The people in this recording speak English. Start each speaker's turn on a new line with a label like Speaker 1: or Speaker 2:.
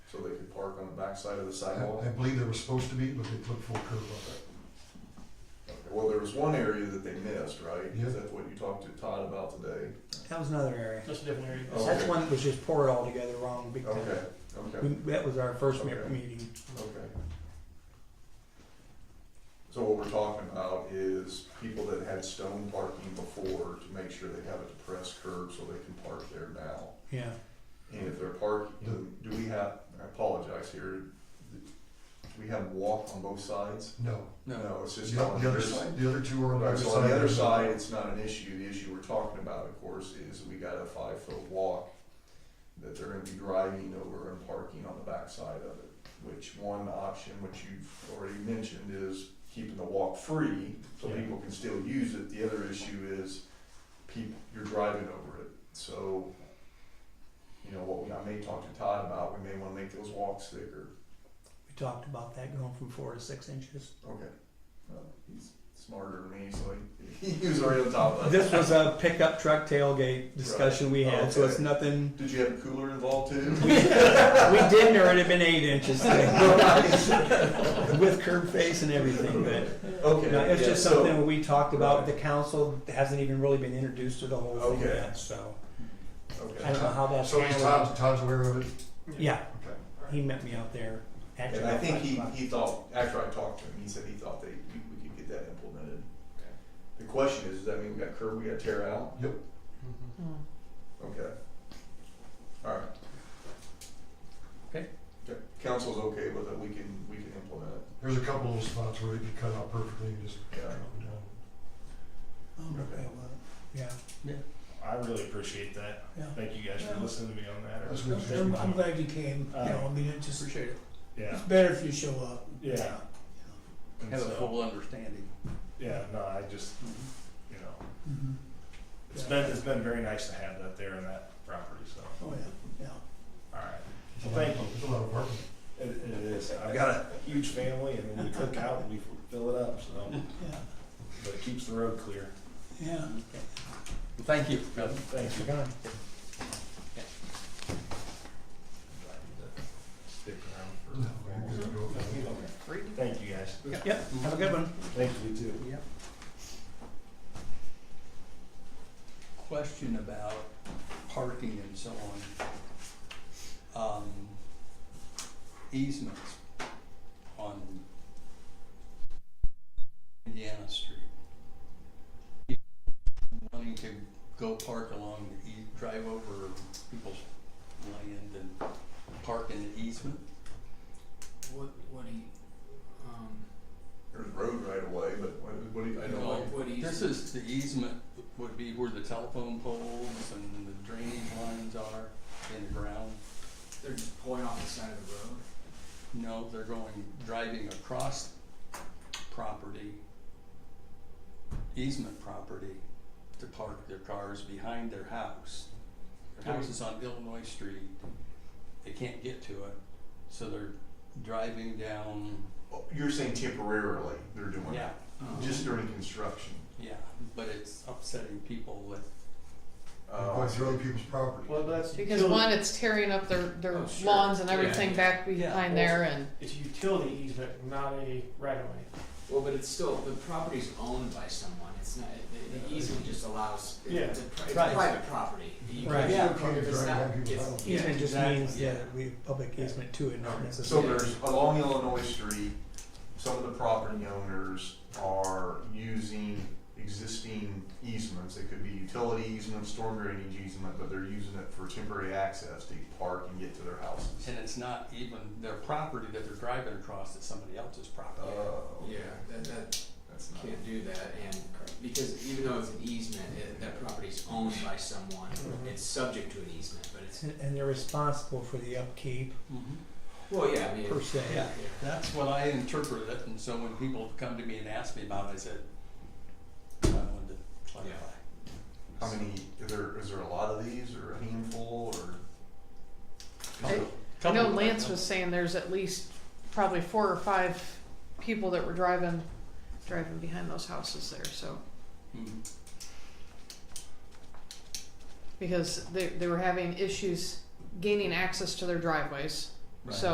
Speaker 1: park on the backside of the sidewalk.
Speaker 2: I I believe there was supposed to be, but they put full curb on
Speaker 1: Well, there was one area that they missed, right?
Speaker 2: Yeah.
Speaker 1: Is that what you talked to Todd about today?
Speaker 3: That was another area.
Speaker 4: That's a different area.
Speaker 1: Oh.
Speaker 3: That's
Speaker 1: Okay.
Speaker 3: one that was just poured all together wrong. Big time.
Speaker 1: Okay, okay,
Speaker 3: We, that was our first me-
Speaker 1: Okay.
Speaker 3: meeting.
Speaker 1: okay. So what we're talking about is people that had stone parking before to make sure they have a depressed curb so they can park there now.
Speaker 3: Yeah.
Speaker 1: And if they're parking, do we have, I apologize here, do we have walk on both sides?
Speaker 2: it. No.
Speaker 1: No, it's just
Speaker 2: The
Speaker 1: not
Speaker 2: o-
Speaker 1: on
Speaker 2: the
Speaker 1: the
Speaker 2: other,
Speaker 1: other
Speaker 2: s-
Speaker 1: side.
Speaker 2: the other two are on the
Speaker 1: Right,
Speaker 2: other
Speaker 1: so
Speaker 2: side.
Speaker 1: on the other side, it's not an issue, the issue we're talking about, of course, is we got a five-foot walk that they're gonna be driving over and parking on the backside of it, which one option, which you've already mentioned, is keeping the walk free, so
Speaker 4: Yeah.
Speaker 1: people can still use it, the other issue is people, you're driving over it, so, you know, what we, I may talk to Todd about, we may wanna make those walks thicker,
Speaker 3: We talked about that going from four to six inches.
Speaker 1: okay. Well, he's smarter than me, so he, he was already on top of it.
Speaker 3: This was a pickup truck tailgate discussion we had, so it's
Speaker 1: Okay.
Speaker 3: nothing.
Speaker 1: Did you have a cooler involved too?
Speaker 3: we didn't, or it'd have been eight inches with curb face and everything. But
Speaker 1: Okay.
Speaker 3: no, it's
Speaker 1: yeah,
Speaker 3: just
Speaker 1: so-
Speaker 3: something we talked about. with The council It hasn't even really been introduced to the whole thing
Speaker 1: Okay.
Speaker 3: yet, so I
Speaker 1: Okay.
Speaker 3: don't know how that's.
Speaker 2: So he's
Speaker 3: handled.
Speaker 2: Todd, Todd's aware of it?
Speaker 3: Yeah,
Speaker 2: Okay.
Speaker 3: he met me out there. Actually,
Speaker 1: And I
Speaker 3: about
Speaker 1: think
Speaker 3: five
Speaker 1: he,
Speaker 3: o'clock.
Speaker 1: he thought, after I talked to him, he said he thought they, we- we could get that implemented. The question is, does that mean we got curb, we gotta tear out?
Speaker 2: Yep.
Speaker 1: Okay. Alright.
Speaker 3: Okay.
Speaker 1: Council's okay with it, we can, we can implement it,
Speaker 2: There's a couple of spots where it could cut out perfectly and just
Speaker 1: yeah.
Speaker 2: drop it down.
Speaker 3: I'm okay with it. Yeah,
Speaker 4: I really appreciate that.
Speaker 3: yeah.
Speaker 4: Thank you guys for
Speaker 5: Yeah.
Speaker 4: listening to me on that.
Speaker 2: That's what it's
Speaker 5: I'm, I'm glad you came, you
Speaker 4: Uh,
Speaker 5: know, I mean, it just,
Speaker 6: Appreciate it.
Speaker 4: Yeah,
Speaker 5: it's better if you show up.
Speaker 4: yeah. And
Speaker 6: Have a
Speaker 4: so-
Speaker 6: full understanding.
Speaker 4: Yeah, no, I just, you know,
Speaker 5: Mhm.
Speaker 4: it's been, it's been very nice to have that there in that property, so,
Speaker 5: Oh, yeah, yeah.
Speaker 4: all right.
Speaker 2: It's a
Speaker 4: Well,
Speaker 2: lot
Speaker 4: thank
Speaker 2: of-
Speaker 4: you.
Speaker 2: It's a lot of work.
Speaker 4: It, it is. I've got a huge family and when we cook out, we fill it up, so,
Speaker 5: Yeah,
Speaker 4: but it keeps the road clear.
Speaker 5: yeah.
Speaker 6: Thank you. Bill.
Speaker 4: Thank you.
Speaker 3: Forgot.
Speaker 4: Stick
Speaker 2: No,
Speaker 4: around
Speaker 2: you're good to go.
Speaker 4: for. Thank you, guys.
Speaker 3: Yep, have a good one.
Speaker 4: Thank you, too.
Speaker 6: Yep. Question about parking and so on. Um, easements on Indiana Street. Wanting to go park along the ea- drive over people's land and park in the easement?
Speaker 7: What, what do you, um,
Speaker 1: There's road right away, but what, what do you, I don't
Speaker 6: Well,
Speaker 1: like.
Speaker 7: what do you?
Speaker 6: This is, the easement would be where the telephone poles and the drainage lines are in the ground.
Speaker 7: They're just pulling off the side of the road.
Speaker 6: No, they're going, driving across property, easement property, to park their cars behind their house. Their house is on Illinois Street, they can't get to it, so they're driving down,
Speaker 1: You're saying temporarily they're doing
Speaker 6: yeah,
Speaker 1: it, just during construction.
Speaker 6: yeah, but it's upsetting people that
Speaker 1: Uh,
Speaker 2: Going through other people's property.
Speaker 4: Well, that's.
Speaker 8: Because one, it's tearing up their, their
Speaker 6: Oh, sure.
Speaker 8: lawns and
Speaker 6: Yeah.
Speaker 8: everything back
Speaker 4: Yeah.
Speaker 8: behind there and.
Speaker 4: It's a utility easement, not a right of way.
Speaker 7: Well, but it's still, the property's owned by someone, it's not, the, the easement just allows,
Speaker 4: Yeah.
Speaker 7: it's a, pri- it's
Speaker 3: Right.
Speaker 7: private property. You
Speaker 3: Right.
Speaker 7: can't-
Speaker 2: Yeah.
Speaker 7: It's not,
Speaker 2: Right.
Speaker 7: it's, yeah,
Speaker 3: Easement just
Speaker 7: exactly,
Speaker 3: means, yeah,
Speaker 7: yeah.
Speaker 3: we have public easement to it, not
Speaker 1: So
Speaker 3: necessarily.
Speaker 1: there's, along Illinois Street, some of the property owners are using existing easements. It could be utility easement, storm drainage easement, but they're using it for temporary access to park and get to their houses.
Speaker 6: And it's not even their property that they're driving across, it's somebody else's
Speaker 1: Oh,
Speaker 6: property.
Speaker 7: Yeah, that, that,
Speaker 1: that's not,
Speaker 7: can't do that, and, because even though it's an easement, it, that property's owned by someone,
Speaker 4: Mhm.
Speaker 7: it's subject to an easement, but it's,
Speaker 3: And- And they're responsible for the upkeep
Speaker 6: Mhm.
Speaker 7: well, yeah, I mean.
Speaker 3: per se.
Speaker 6: Yeah, that's what I interpret it, and so when people come to me and ask me about it, I said, I wanted to clarify.
Speaker 1: how many, is there, is there a lot of these or a handful or?
Speaker 8: I- I know Lance was saying there's at least probably four or five people that were driving, driving behind those houses there, so.
Speaker 6: Mhm.
Speaker 8: Because they, they were having issues gaining access to their driveways,
Speaker 6: Right.
Speaker 8: so